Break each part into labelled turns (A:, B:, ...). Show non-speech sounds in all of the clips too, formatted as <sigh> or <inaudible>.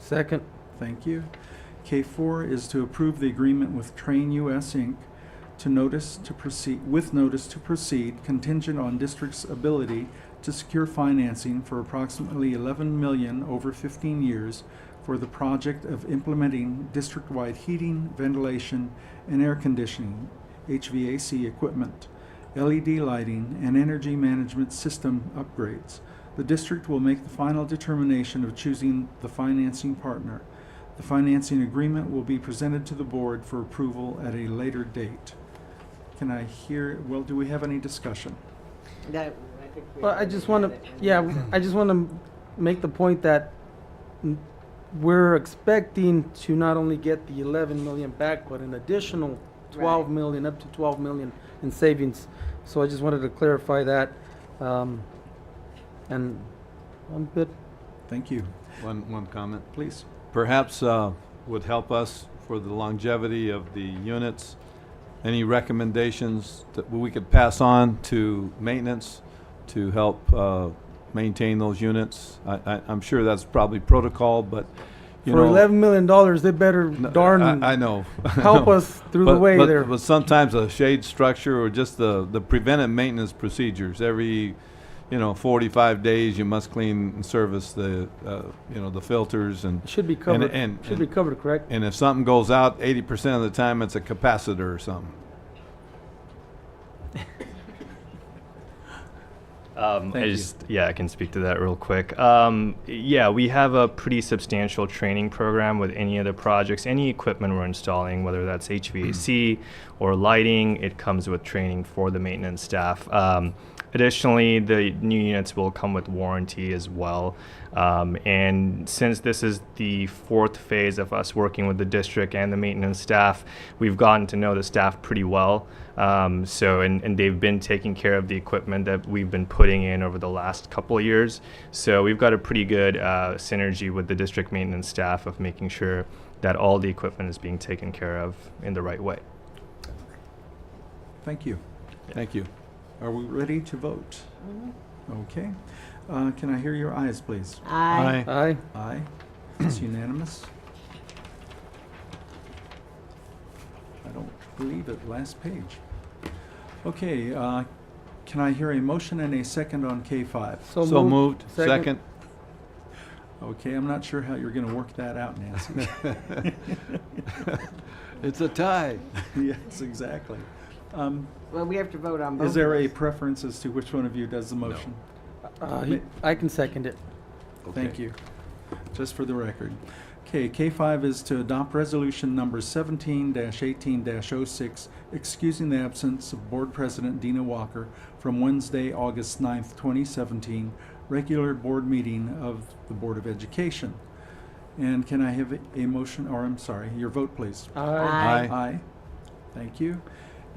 A: Second.
B: Thank you. K4 is to approve the agreement with Train US Inc. to notice to proceed, with notice to proceed contingent on district's ability to secure financing for approximately 11 million over 15 years for the project of implementing district-wide heating, ventilation, and air conditioning, HVAC equipment, LED lighting, and energy management system upgrades. The district will make the final determination of choosing the financing partner. The financing agreement will be presented to the board for approval at a later date. Can I hear, well, do we have any discussion?
C: That, I think we
A: Well, I just want to,
C: already had it.
A: yeah, I just want to make the point that n- we're expecting to not only get the 11 million back, but an additional 12
C: Right.
A: million, up to 12 million in savings. So I just wanted to clarify that. um, And I'm good.
B: Thank you.
D: One, one comment.
B: Please.
D: Perhaps uh, would help us for the longevity of the units. Any recommendations that we could pass on to maintenance to help uh, maintain those units? I, I, I'm sure that's probably protocol, but you
A: For
D: know,
A: 11 million dollars, they better
D: no,
A: darn
D: I, I know. <laughs>
A: help us through the
D: But-
A: way
D: but-
A: there.
D: But sometimes a shade structure or just the, the preventive maintenance procedures, every, you know, forty-five days, you must clean and service the, uh, you know, the filters and,
A: Should be covered,
D: and-
A: should be
D: and-
A: covered, correct?
D: and if something goes out, eighty percent of the time, it's a capacitor or something.
E: Um,
B: Thank
E: I
B: you.
E: just, yeah, I can speak to that real quick. Um, yeah, we have a pretty substantial training program with any of the projects, any equipment we're installing, whether that's HVAC
B: Mm-hmm.
E: or lighting, it comes with training for the maintenance staff. Um, additionally, the new units will come with warranty as well. Um, and since this is the fourth phase of us working with the district and the maintenance staff, we've gotten to know the staff pretty well. Um, so, and, and they've been taking care of the equipment that we've been putting in over the last couple of years. So, we've got a pretty good uh, synergy with the district maintenance staff of making sure that all the equipment is being taken care of in the right way.
B: Thank you.
D: Thank you.
B: Are we ready to vote? Okay. Uh, Can I hear your ayes, please?
C: Aye.
A: Aye.
B: Aye. It's unanimous. I don't believe it, last page. Okay, uh, can I hear a motion and a second on K5?
D: So moved, second.
B: Okay, I'm not sure how you're going to work that out, Nancy.
D: It's a tie.
B: <laughs> Yes, exactly. Um,
C: Well, we have to vote on both.
B: Is there
C: of
B: a
C: those.
B: preference as to which one of you does the motion?
A: Uh, he- I can second it.
B: Thank you. Just for the record. Okay, K5 is to adopt resolution number 17-18-06, excusing the absence of Board President Dina Walker from Wednesday, August 9th, 2017, regular board meeting of the Board of Education. And can I have a- a motion, or I'm sorry, your vote, please?
A: Aye.
D: Aye.
B: Aye. Thank you.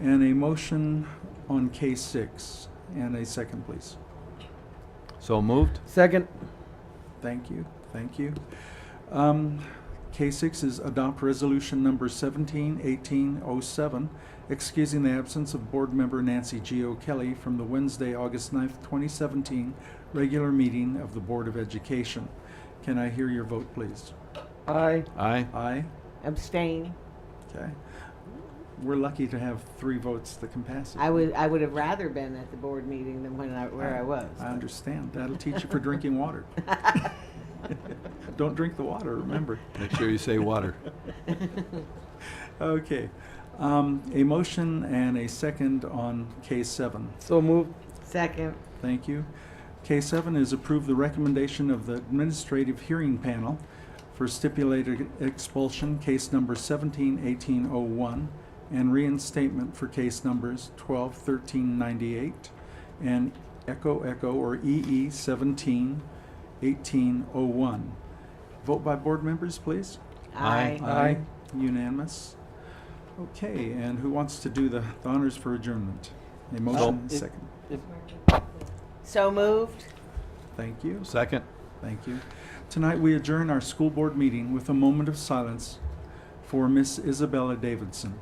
B: And a motion on K6, and a second, please.
D: So moved?
A: Second.
B: Thank you, thank you. Um, K6 is adopt resolution number 171807, excusing the absence of board member Nancy G. O'Kelly from the Wednesday, August 9th, 2017, regular meeting of the Board of Education. Can I hear your vote, please?
A: Aye.
D: Aye.
B: Aye?
C: Abstain.
B: Okay. We're lucky to have three votes that can pass it.
C: I would, I would have rather been at the board meeting than when I, where I was.
B: I understand. That'll teach you for drinking water. <laughs> Don't drink the water, remember.
D: Make sure you say water.
B: Okay. Um, a motion and a second on K7.
A: So moved.
C: <laughs> Second,
B: Thank you. K7 is approve the recommendation of the administrative hearing panel for stipulated expulsion, case number 171801, and reinstatement for case numbers 121398 and Echo Echo or E EE 171801. Vote by board members, please.
D: Aye.
C: aye.
A: Aye.
B: Unanimous. Okay, and who wants to do the the honors for adjournment? A motion, and a
A: it-
B: second.
C: So moved.
B: Thank you.
D: Second?
B: Thank you. Tonight, we adjourn our school board meeting with a moment of silence for Miss Isabella Davidson.